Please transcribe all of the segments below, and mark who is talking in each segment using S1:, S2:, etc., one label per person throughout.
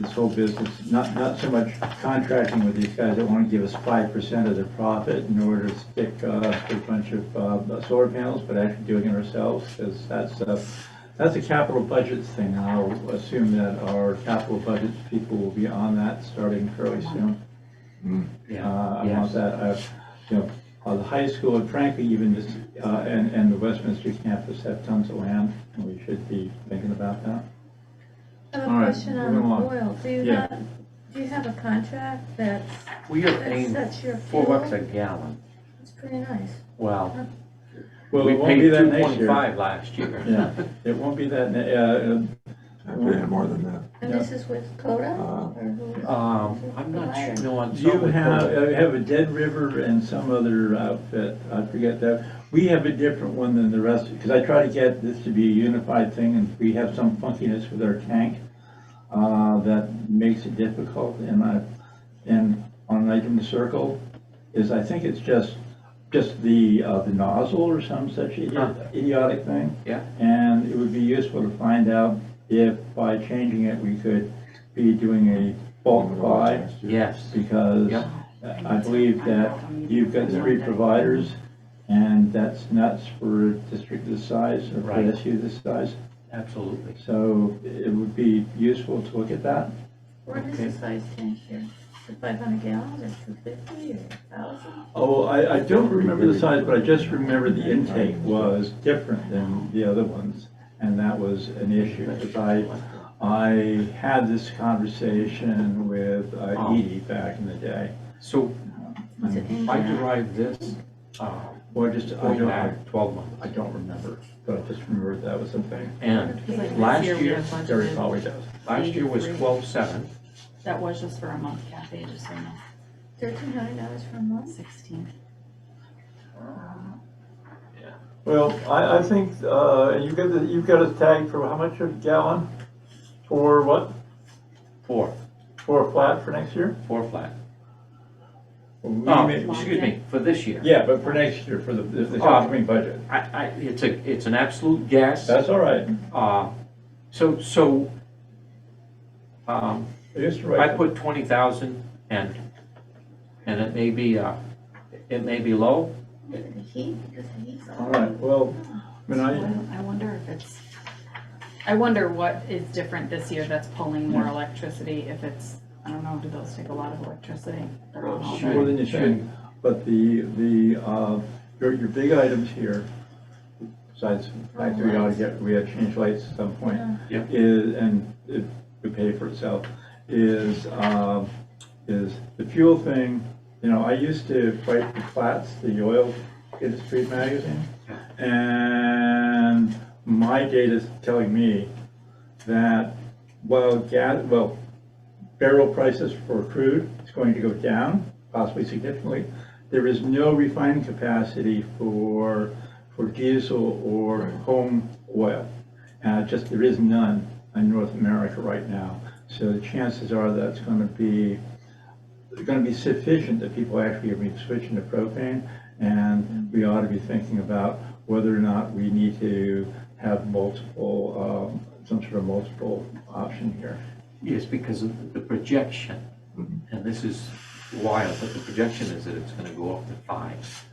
S1: this whole business, not, not so much contracting with these guys that want to give us five percent of their profit in order to stick, uh, stick a bunch of, uh, solar panels, but actually doing it ourselves, because that's, uh, that's a capital budgets thing, and I'll assume that our capital budgets people will be on that starting fairly soon. Uh, I
S2: Yes.
S1: want that, I, you know, uh, the high school, and frankly, even this, uh, and, and the Westminster campus have tons of land, and we should be thinking about that.
S3: I have
S1: All
S3: a
S1: right,
S3: question on the
S1: moving along.
S3: oil. Do you
S1: Yeah.
S3: have, do you have a contract that's,
S2: We are
S3: that
S2: paying
S3: sets your
S2: four bucks
S3: fuel?
S2: a gallon.
S3: It's pretty nice.
S2: Well,
S1: Well,
S2: we
S1: it won't be
S2: paid
S1: that
S2: two
S1: next
S2: point
S1: year.
S2: five last year.
S1: Yeah, it won't be that, ne- uh,
S4: I paid more than that.
S3: And
S1: Yeah.
S3: this is with Coda?
S4: Uh,
S3: Or who-
S2: Um, I'm not sure, no, I'm
S1: You
S2: sorry.
S1: have, uh, have a Dead River and some other outfit, I forget that. We have a different one than the rest, because I try to get this to be a unified thing, and we have some funkiness with our tank uh, that makes it difficult, and I, and on Night in the Circle is, I think it's just, just the, uh, the nozzle or some such
S2: Huh.
S1: idi- idiotic thing.
S2: Yeah.
S1: And it would be useful to find out if by changing it, we could be doing a bulk buy
S2: Yes,
S1: because
S2: Yeah.
S1: I believe that you've got three providers, and that's nuts for a district this size, or for
S2: Right.
S1: SU this size.
S2: absolutely.
S1: So it would be useful to look at that.
S3: What is
S2: Okay.
S3: the size tank here? Is it five hundred gallons or two fifty or thousand?
S1: Oh, I, I don't remember the size, but I just remember the intake was different than the other ones, and that was an issue, because I, I had this conversation with uh,
S2: Oh.
S1: Edie back in the day.
S2: So
S1: Hmm.
S3: Is it in
S2: I
S3: gallons?
S2: derived this, uh,
S1: Or just, I
S2: going
S1: don't, I
S2: back twelve months.
S1: I don't remember, but I just remembered that was a thing.
S2: And
S5: Because I think
S2: last
S5: this we
S2: year,
S5: have budgeted-
S1: Gary probably does.
S2: last year was twelve seven.
S5: That was just for a month, Kathy, just so you know,
S3: Thirteen hundred dollars for a month?
S5: sixteen.
S1: Well, I, I think, uh, you've got, the- you've got a tag for how much a gallon? For what?
S2: Four.
S1: For a flat for next year?
S2: four flat.
S1: We
S2: Oh,
S1: may-
S2: excuse me, for this year.
S1: Yeah, but for next year, for the, the
S2: Oh.
S1: the upcoming budget.
S2: I, I, it's a, it's an absolute guess.
S1: That's all right.
S2: Uh, so, so, um,
S1: I used to
S2: I
S1: write,
S2: put twenty thousand and, and it may be, uh, it may be low.
S3: The heat, because the heat's
S1: all
S3: on.
S1: right, well, I mean, I,
S5: I wonder if it's, I wonder what is different this year that's pulling
S2: Hmm.
S5: more electricity, if it's, I don't know, do those take a lot of electricity? They're on all
S1: more
S5: day.
S1: than you
S2: Sure.
S1: think, but the, the, uh, your, your big items here, besides, the fact that we ought to get, we ought to change lights at some point.
S2: Yeah.
S3: Yeah.
S1: Is, and it would pay for itself, is, um, is the fuel thing, you know, I used to write the Platts, the oil industry magazine. And my data's telling me that while gas, well, barrel prices for crude is going to go down, possibly significantly, there is no refining capacity for, for diesel or home oil. Uh, just, there is none in North America right now. So the chances are that's gonna be, gonna be sufficient that people actually are gonna be switching to propane. And we ought to be thinking about whether or not we need to have multiple, um, some sort of multiple option here.
S2: Yes, because of the projection,
S1: Mm-hmm.
S2: and this is wild, but the projection is that it's gonna go up to five.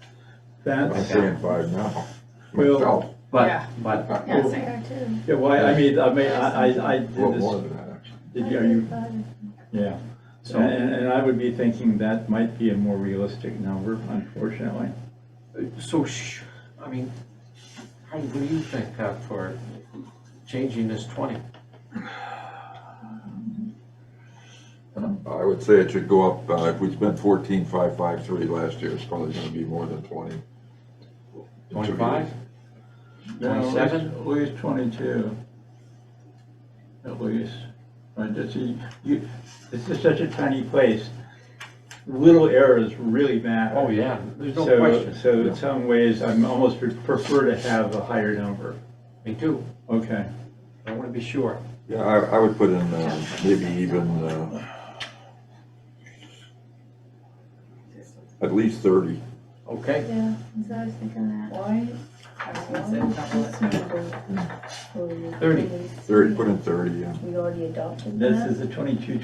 S4: I'm
S1: That's,
S4: paying five now.
S1: Well-
S4: Myself,
S2: But,
S5: Yeah.
S2: but,
S5: Yeah,
S3: They
S5: same.
S3: are too.
S1: yeah, well, I mean, I mean, I, I- I
S4: a
S1: did
S4: little more
S1: this,
S4: than that, actually.
S1: did you, are you,
S3: $135.
S1: yeah.
S2: so,
S1: And, and I would be thinking that might be a more realistic number, unfortunately. uh,
S2: so, sh- I mean, how, what do you think uh, for changing this twenty?
S4: I would say it should go up, uh, if we spent fourteen five five three last year, it's probably gonna be more than twenty. In two years.
S2: Twenty-five?
S1: No, at least-
S2: 27?
S1: At least twenty-two. At least. Right, that's, you, you- this is such a tiny place. Little errors really matter.
S2: Oh, yeah, there's no
S1: So-
S2: question.
S1: So in some ways, I'm almost pre- prefer to have a higher number.
S2: Me too.
S1: Okay.
S2: I want to be sure.
S4: Yeah, I, I would put in, uh, maybe even, uh, at least thirty.
S2: Okay.
S3: Yeah, so I was thinking that.
S6: Why
S5: I was gonna say double it.
S3: Thirty, put in thirty, yeah.
S4: We already adopted that.
S1: This is the twenty-two,